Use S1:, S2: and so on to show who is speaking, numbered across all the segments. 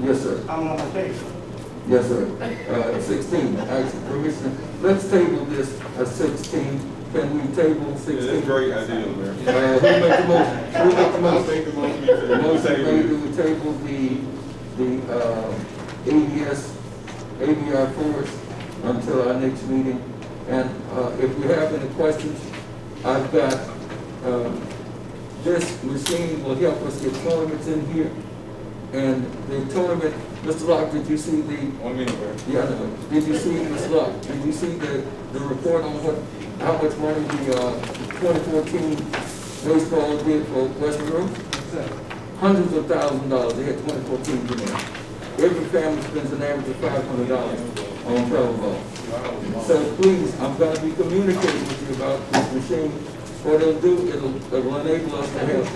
S1: Yes, sir.
S2: I'm not mistaken.
S1: Yes, sir. Uh, sixteen, actually, Commissioner, let's table this at sixteen. Can we table
S3: Yeah,
S1: sixteen?
S3: That's a great idea, Mayor.
S1: Uh, who make the motion? Who make the
S3: I'll
S1: motion?
S3: make the motion.
S1: The motion made
S3: Table.
S1: to table the, the, uh, ADS, ABR force until our next meeting. And, uh, if we have any questions, I've got, um, this machine will help us get tournaments in here. And the tournament, Mr. Locke, did you see the,
S3: One minute, Mayor.
S1: yeah, I know. Did you see, Ms. Luck, did you see the, the report on what, how much money the, uh, twenty fourteen baseball did for Westbrook? Hundreds of thousands of dollars, they had twenty fourteen games. Every family spends an average of five hundred dollars on Powerball. So please, I'm gonna be communicating with you about this machine. What it'll do, it'll, it'll enable us to have.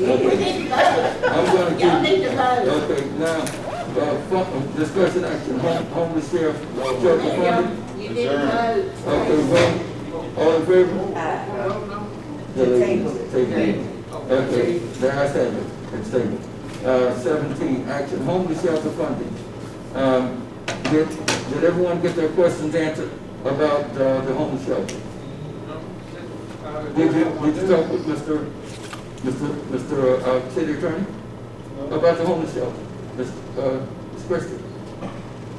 S1: Okay. I'm gonna give.
S4: Y'all need to vote.
S1: Okay, now, uh, fu- discussion action, home, homeless sheriff, sheriff funding.
S4: You didn't vote.
S1: Okay, vote, all in favor? Yeah,
S5: Table.
S1: Table. Okay, the ayes have it, it's tabled. Uh, seventeen, action, homeless shelter funding. Um, did, did everyone get their questions answered about, uh, the homeless shelter? Did you, did you talk with Mr., Mr., Mr., uh, city attorney? About the homeless shelter, Ms., uh, Ms. Christie? Ms.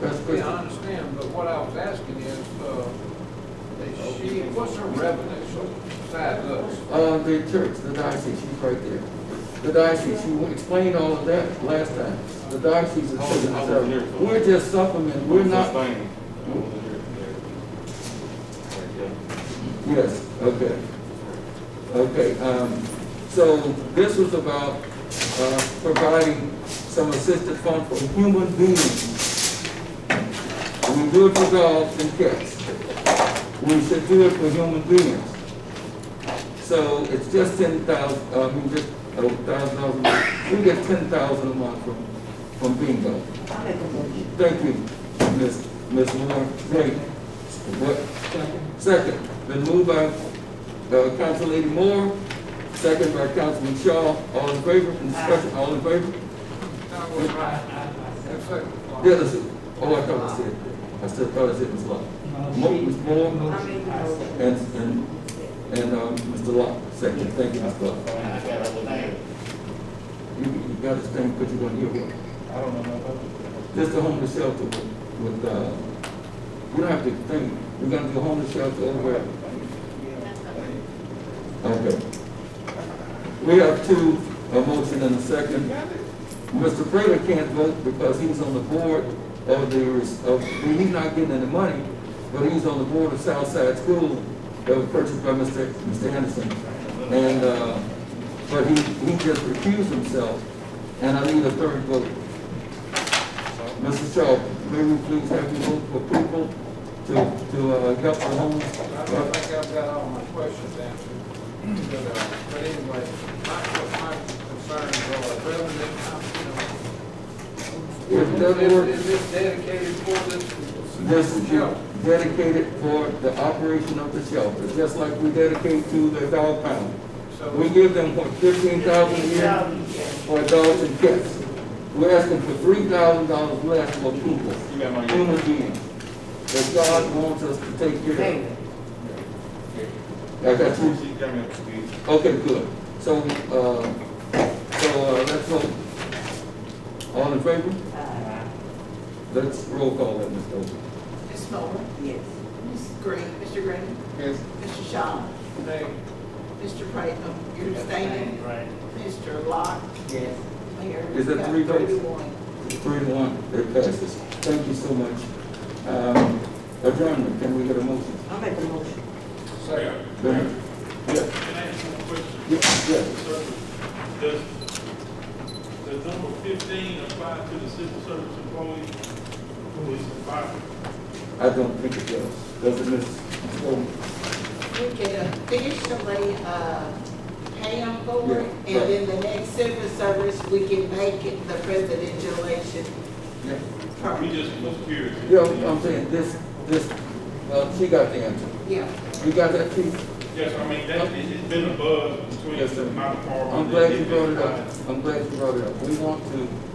S6: Yeah,
S1: Christie?
S6: I understand, but what I was asking is, uh, is she, what's her revenue side looks?
S1: Uh, the church, the diocese, she's right there. The diocese, she explained all of that last time. The diocese is
S3: I was- I was
S1: taking
S3: here.
S1: care of it. We're just supplement, we're not,
S3: Sustaining.
S1: yes, okay. Okay, um, so this was about, uh, providing some assistance fund for human beings. We do it for dogs and cats. We should do it for human beings. So it's just ten thousand, uh, we just, oh, thousand dollars, a month. we get ten thousand a month from, from bingo.
S5: I make a motion.
S1: Thank you, Ms. Ms. Moore. Wait, what? Second, been moved by, uh, Council Lady Moore, second by Councilman Shaw, all in favor, in discussion, all in favor?
S6: Now, what's right? That's second.
S1: Yeah, that's it. Oh, I thought I said, I still thought I said Ms. Locke. Mo- Ms. Moore
S5: I make a motion.
S1: and, and, and, um, Mr. Locke, second, thank you, Ms. Locke. You, you gotta stand, because you're gonna hear what.
S3: I don't know about
S1: Just a homeless shelter with, with, uh, we don't have to think, we're gonna do a homeless shelter over at Okay. We have two, a motion and a second. Mr. Prater can't vote because he's on the board of the, res- of, he's not getting any money, but he's on the board of Southside School that was purchased by Mr. Mr. Anderson. And, uh, but he, he just recused himself, and I need a third vote. Mr. Shaw, may we please have you vote for people to, to, uh, help the homeless?
S6: I don't think I've got all my questions answered. But, uh, but anyway, my, my concerns are revenue, you know.
S1: If that works.
S6: Is this dedicated for this?
S1: This is dedicated for the operation of the shelter, just like we dedicate to the dog pound.
S6: So,
S1: We give them, what, fifteen thousand a year for dogs and cats. We're asking for three thousand dollars less for people,
S3: You got my.
S1: human beings, that God wants us to take care
S5: Table.
S1: of. I got you.
S3: She got me up to speed.
S1: Okay, good. So, uh, so, uh, let's vote. All in favor?
S5: Aye.
S1: Let's roll call that, Mr. Oakley.
S7: Ms. Moore,
S5: Yes.
S7: Ms. Green, Mr. Green,
S3: Yes.
S7: Mr. Shaw,
S6: they,
S7: Mr. Prater, you're abstaining,
S8: Right.
S7: Mr. Locke,
S5: Yes.
S7: Mayor.
S1: Is that
S7: we've got
S1: three votes?
S7: thirty-one.
S1: Three to one, it passes. Thank you so much. Um, Adjournment, can we get a motion?
S5: I make a motion.
S6: say.
S1: Yes,
S9: Can I ask you a question,
S1: yes.
S9: sir? Does, does number fifteen apply to the civil service employees who is fired?
S1: I don't think it does. Does it, Ms. Coleman?
S7: You can officially, uh, pay them for it, and
S1: Yeah, right.
S7: then the next civil service, we can make it the presidential election
S1: Yeah.
S9: We
S7: term.
S9: just was curious.
S1: Yeah, I'm saying this, this, well, she got the answer.
S7: Yeah.
S1: You got that, Chief?
S9: Yes, I mean, that, it- it's been a buzz between
S1: Yes, sir.
S9: my department.
S1: I'm glad you brought it up. I'm glad you brought it up. We want to